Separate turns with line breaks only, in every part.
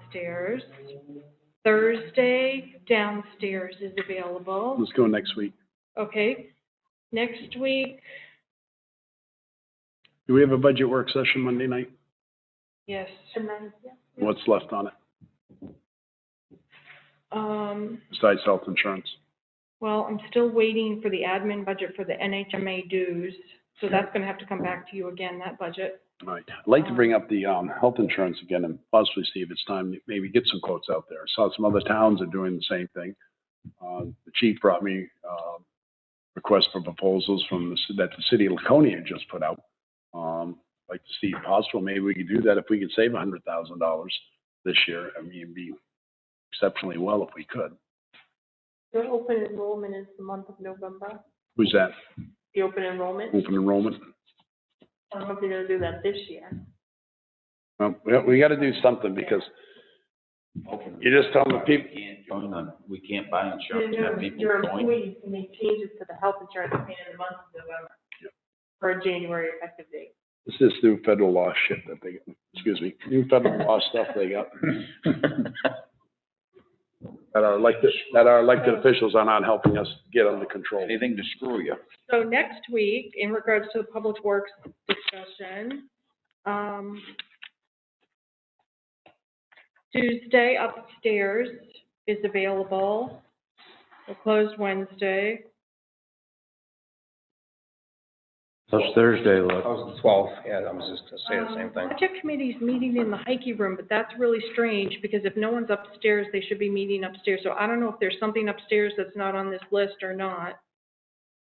downstairs. Thursday downstairs is available.
Let's go next week.
Okay, next week,
Do we have a budget work session Monday night?
yes,
What's left on it
um,
besides health insurance?
well, I'm still waiting for the admin budget for the NHMA dues. So that's gonna have to come back to you again, that budget.
All right. I'd like to bring up the, um, health insurance again and possibly see if it's time to maybe get some quotes out there. Saw some other towns are doing the same thing. Uh, the chief brought me, uh, requests for proposals from the, ci- that the city of Laconia just put out. Um, like to see if possible, maybe we could do that if we could save a hundred thousand dollars this year. I mean, it'd be exceptionally well if we could.
Your open enrollment is the month of November,
Who's that?
the open enrollment.
Open enrollment?
I don't know if they're gonna do that this year.
Well, we, we gotta do something because you just tell the people,
We can't join them, we can't buy insurance, and have
Your-
people
Your
join.
employees can make changes to the health insurance plan in the month of November for a January effective date.
it's this new federal law shit that they, excuse me, new federal law stuff they got. That our elected, that our elected officials are not helping us get under control.
Anything to screw you.
So next week, in regards to the public works discussion, um, Tuesday upstairs is available. We're closed Wednesday.
How's Thursday look?
How's the twelfth? Yeah, I was just gonna say the same
Um,
thing.
Budget committee's meeting in the Heike room, but that's really strange, because if no one's upstairs, they should be meeting upstairs. So I don't know if there's something upstairs that's not on this list or not.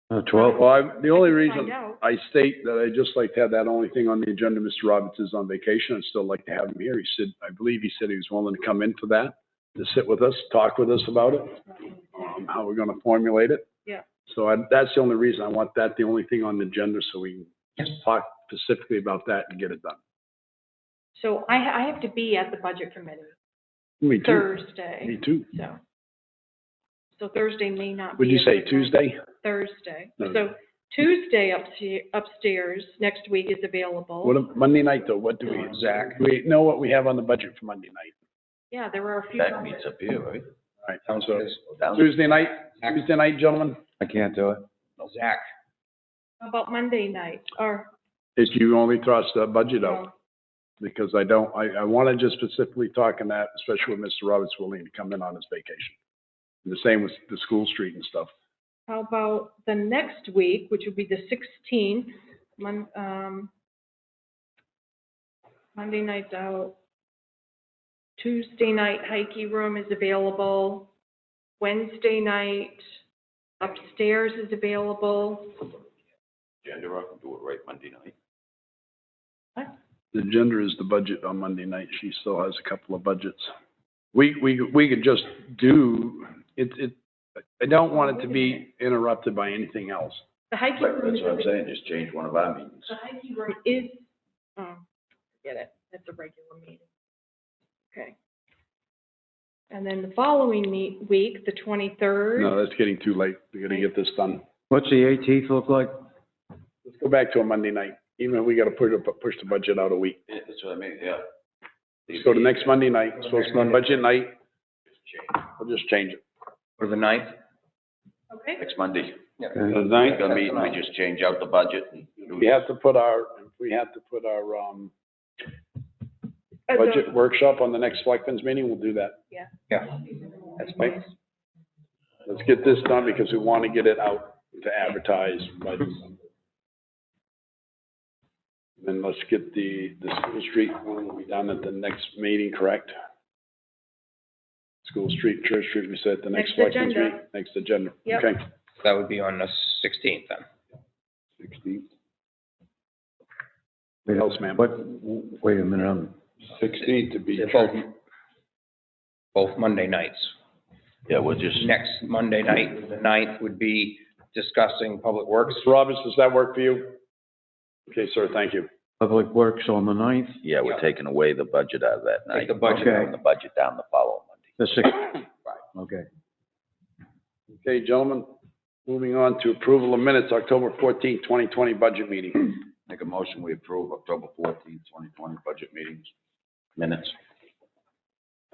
The twelfth?
Well, I, the only reason
Find out.
I state that I just like to have that only thing on the agenda, Mr. Roberts is on vacation, I'd still like to have him here. He said, I believe he said he was willing to come in for that, to sit with us, talk with us about it, um, how we're gonna formulate it.
Yeah.
So I, that's the only reason I want that, the only thing on the agenda, so we can talk specifically about that and get it done.
So I, I have to be at the budget committee
Me too, me
Thursday,
too.
so. So Thursday may not be.
Would you
a
say
good night.
Tuesday?
Thursday.
No.
So Tuesday upstairs, upstairs next week is available.
What, ab- Monday night though, what do we, Zach, do we know what we have on the budget for Monday night?
Um, Yeah, there are a few.
That meets up here, right?
All right,
Sounds
so
good.
Down-
Tuesday night, Tuesday night, gentlemen?
I can't do it.
Zach,
How about Monday night, or,
is you only thrust the budget out,
well,
because I don't, I, I want to just specifically talk on that, especially with Mr. Roberts willing to come in on his vacation. And The same with the school street and stuff.
how about the next week, which would be the sixteenth, Mon, um, Monday night's out. Tuesday night, Heike Room is available. Wednesday night, upstairs is available.
Yeah, you're up and do it right Monday night.
The agenda is the budget on Monday night, she still has a couple of budgets. We, we, we could just do, it, it, I don't want it to be interrupted by anything else.
The Heike Room
Right, That's
is
what I'm saying, just change one of our meetings.
The Heike Room is, oh, get it, it's a regular meeting. Okay. And then the following meet, week, the
No,
twenty-third,
that's getting too late, we gotta get this done.
What's the eighteenth look like?
Let's go back to a Monday night, even if we gotta push, the- push the budget out a week.
Yeah, That's what I mean, yeah.
Let's go to next Monday night, so it's my budget night,
Change.
we'll just change it.
or the ninth?
okay?
Next Monday.
The
We're
ninth,
gonna meet, and we just change out the budget and. do-
we have to put our, we have to put our, um,
Uh, the-
budget workshop on the next selectmen's meeting, we'll do that.
Yeah, that's
Right?
fine.
Let's get this done because we want to get it out to advertise by December. Then let's get the, the school street one will be done at the next meeting, correct? School street, Church Street, we said at the next
Next
selectmen's
agenda.
meeting, next agenda,
Yep.
okay?
That would be on the sixteenth then.
Sixteenth. Else, ma'am?
What, wait a minute, I'm,
Sixteenth to be.
They're Both, both Monday nights.
Yeah, we'll just,
Next Monday night, the ninth would be discussing public works.
Mr. Roberts, does that work for you? Okay, sir, thank you.
Public Works on the ninth,
yeah, we're taking away the budget out of that night.
Take the budget
out.
Bring The budget down the following Monday.
the sixteenth. Okay.
Okay, gentlemen, moving on to approval of minutes, October fourteenth, twenty twenty budget meeting.
Make a motion, we approve October fourteenth, twenty twenty budget meetings, minutes.